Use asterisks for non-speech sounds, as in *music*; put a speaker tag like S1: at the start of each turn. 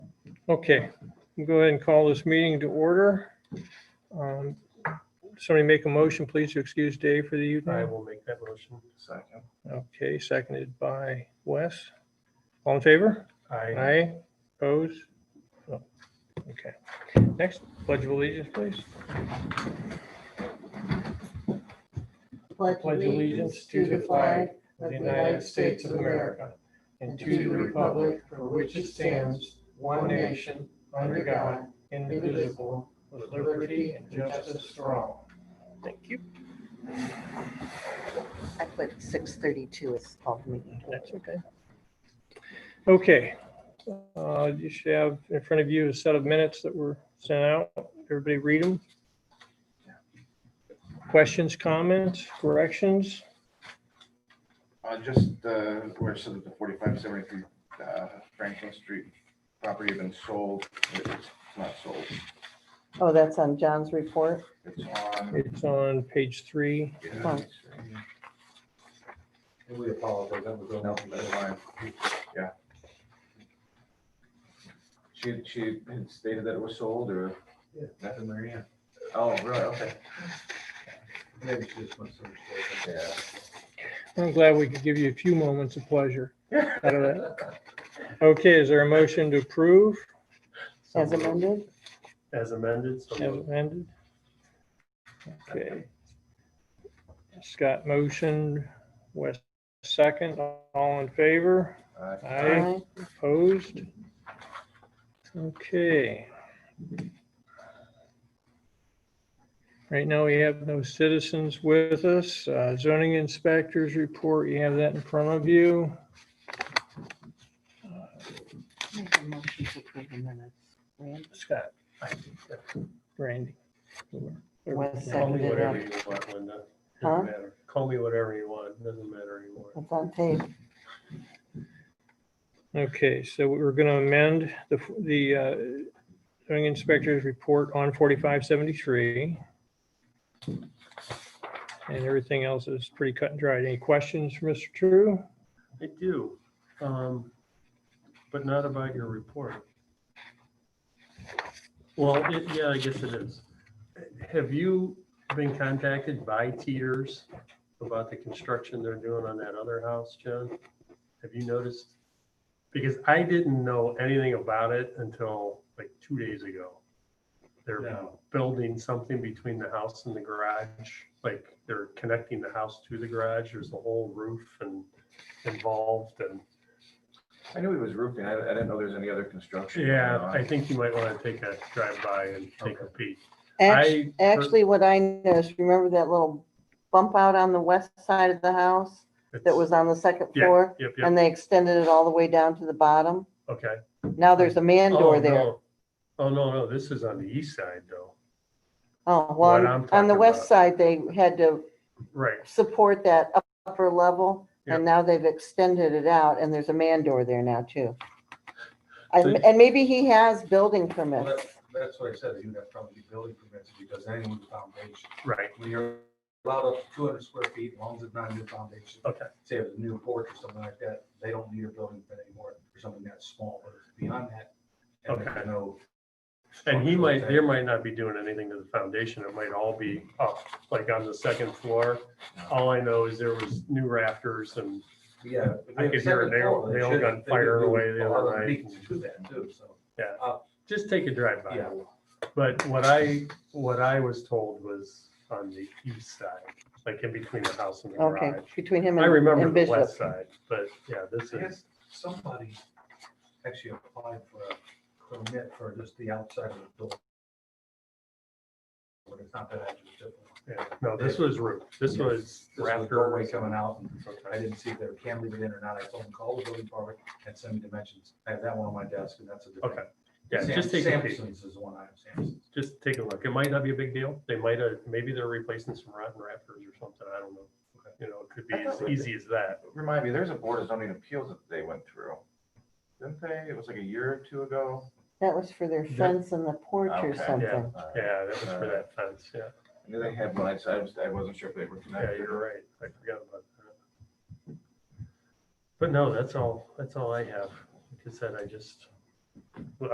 S1: Okay, we'll go ahead and call this meeting to order. Um, Somebody make a motion, please, to excuse Dave for the
S2: I
S1: evening.
S2: will make that motion.
S3: Second.
S1: Okay, seconded by Wes. All in favor?
S2: I
S1: Aye. Opposed? No. Okay. Next, pledge of allegiance, please.
S4: Pledge allegiance to the flag of the United States of America and to the republic for which it stands, one nation, under God, indivisible, with liberty and justice for all.
S1: Thank you.
S4: I put 6:32 is called meeting.
S1: That's okay. Okay. Uh, You should have in front of you a set of minutes that were sent out. Everybody read them. Questions, comments, corrections?
S3: Uh, just, uh, where it says that the forty-five seventy-three, uh, Franklin Street property has been sold, it's not sold,
S4: Oh, that's on John's report?
S3: it's on.
S1: It's on page three.
S3: yeah, it's,
S2: And we apologize. That was
S3: No, that's fine, yeah. She, she had stated that it was sold or?
S5: Nothing, Marianne.
S3: Oh, really, okay.
S5: Maybe she just wants to understand.
S3: Yeah.
S1: I'm glad we could give you a few moments of pleasure out of
S2: *laughs*
S1: that. Okay, is there a motion to approve
S4: As amended?
S2: As amended, so
S1: as
S2: moved.
S1: amended? Okay. Scott motion, West second, all in favor?
S3: Uh,
S1: Aye. Opposed? Okay. Right now, we have no citizens with us. Uh, Zoning inspectors report, you have that in front of you.
S4: Make a motion to approve the minutes. Rand
S1: Scott. Randy.
S4: Was
S2: Call me
S4: Seconded,
S2: whatever
S4: yeah.
S2: you want, Linda.
S4: Huh?
S2: Doesn't matter. Call me whatever you want. Doesn't matter anymore.
S4: It's on tape.
S1: Okay, so we're going to amend the, the uh, zoning inspector's report on 4573. And everything else is pretty cut and dried. Any questions, for Mr. True?
S2: I do, um, but not about your report. Well, it- yeah, I guess it is. Have you been contacted by Teeters about the construction they're doing on that other house, John? Have you noticed? Because I didn't know anything about it until like two days ago. They're
S5: No.
S2: building something between the house and the garage, like they're connecting the house to the garage. There's a whole roof and involved and,
S3: I knew he was roofing, I, I didn't know there's any other construction. going
S2: yeah,
S3: on.
S2: I think you might want to take a drive by and take a peek.
S4: Act-
S2: I-
S4: Actually, what I noticed, remember that little bump out on the west side of the house that
S2: It's-
S4: was on the second
S2: Yeah,
S4: floor?
S2: Yep, yep,
S4: And they extended it all the way down to the bottom?
S2: okay.
S4: Now there's a man door
S2: Oh,
S4: there.
S2: no. Oh, no, no, this is on the east side though.
S4: Oh,
S2: What
S4: well, on-
S2: I'm
S4: on the
S2: talking
S4: west
S2: about.
S4: side, they had to
S2: Right,
S4: support that upper level, and now they've extended it out, and there's a man door there now too. And,
S2: So-
S4: and maybe he has building
S5: Well,
S4: permits.
S5: that- That's what I said, you would have probably get building permits if you does anything with the foundation.
S2: right.
S5: When you're allowed up to two hundred square feet, as long as it's not a new foundation.
S2: Okay.
S5: Say it's a new porch or something like that, they don't need a building permit anymore for something that small, but if it's beyond that. and there's
S2: Okay.
S5: No.
S2: And he
S5: structural
S2: might,
S5: thing,
S2: there might not be doing anything to the foundation. It might all be up, like on the second floor. All I know is there was new rafters and
S5: Yeah. if
S2: I could
S5: have
S2: hear a
S5: separate
S2: nail-
S5: floor, they
S2: nail
S5: should-
S2: gun
S5: they could
S2: fire
S5: do
S2: away the
S5: a
S2: other
S5: lot of
S2: night.
S5: meetings To that too, so.
S2: just take a drive by.
S5: Yeah.
S2: But what I, what I was told was on the east side, like in between the house and the
S4: Okay,
S2: garage.
S4: between him
S2: I
S4: and
S2: remember
S4: and
S2: the
S4: Bishop.
S2: west side, but yeah, this
S5: I
S2: is,
S5: guess somebody actually applied for a permit for just the outside of the building. But it's not that actually different.
S2: yeah, no, this was roof. This
S5: Yeah.
S2: was
S5: This was the doorway
S2: rafters.
S5: coming out, and I
S2: Okay.
S5: didn't see if they were cantilevered in or not, I told them, call the building department and send me dimensions, I have that one on my desk, and that's a different.
S2: Okay. Yeah, just
S5: Sam-
S2: take a peek.
S5: Samson's is the one I have, Samson's.
S2: just take a look. It might not be a big deal. They might have, maybe they're replacing some rotten rafters or something. I don't know. You know, it could be
S3: I
S2: as
S3: thought-
S2: easy as that.
S3: Remind me, there's a board of zoning appeals that they went through. Didn't they? It was like a year or two ago.
S4: That was for their fence and the porch or
S3: Okay, yeah.
S4: something.
S3: Uh,
S2: Yeah, that was for that fence. Yeah,
S3: I knew they had one. I just- I was, I wasn't sure if they were
S2: yeah,
S3: connected.
S2: you're right. I forgot about that. But no, that's all, that's all I have. Like I said, I just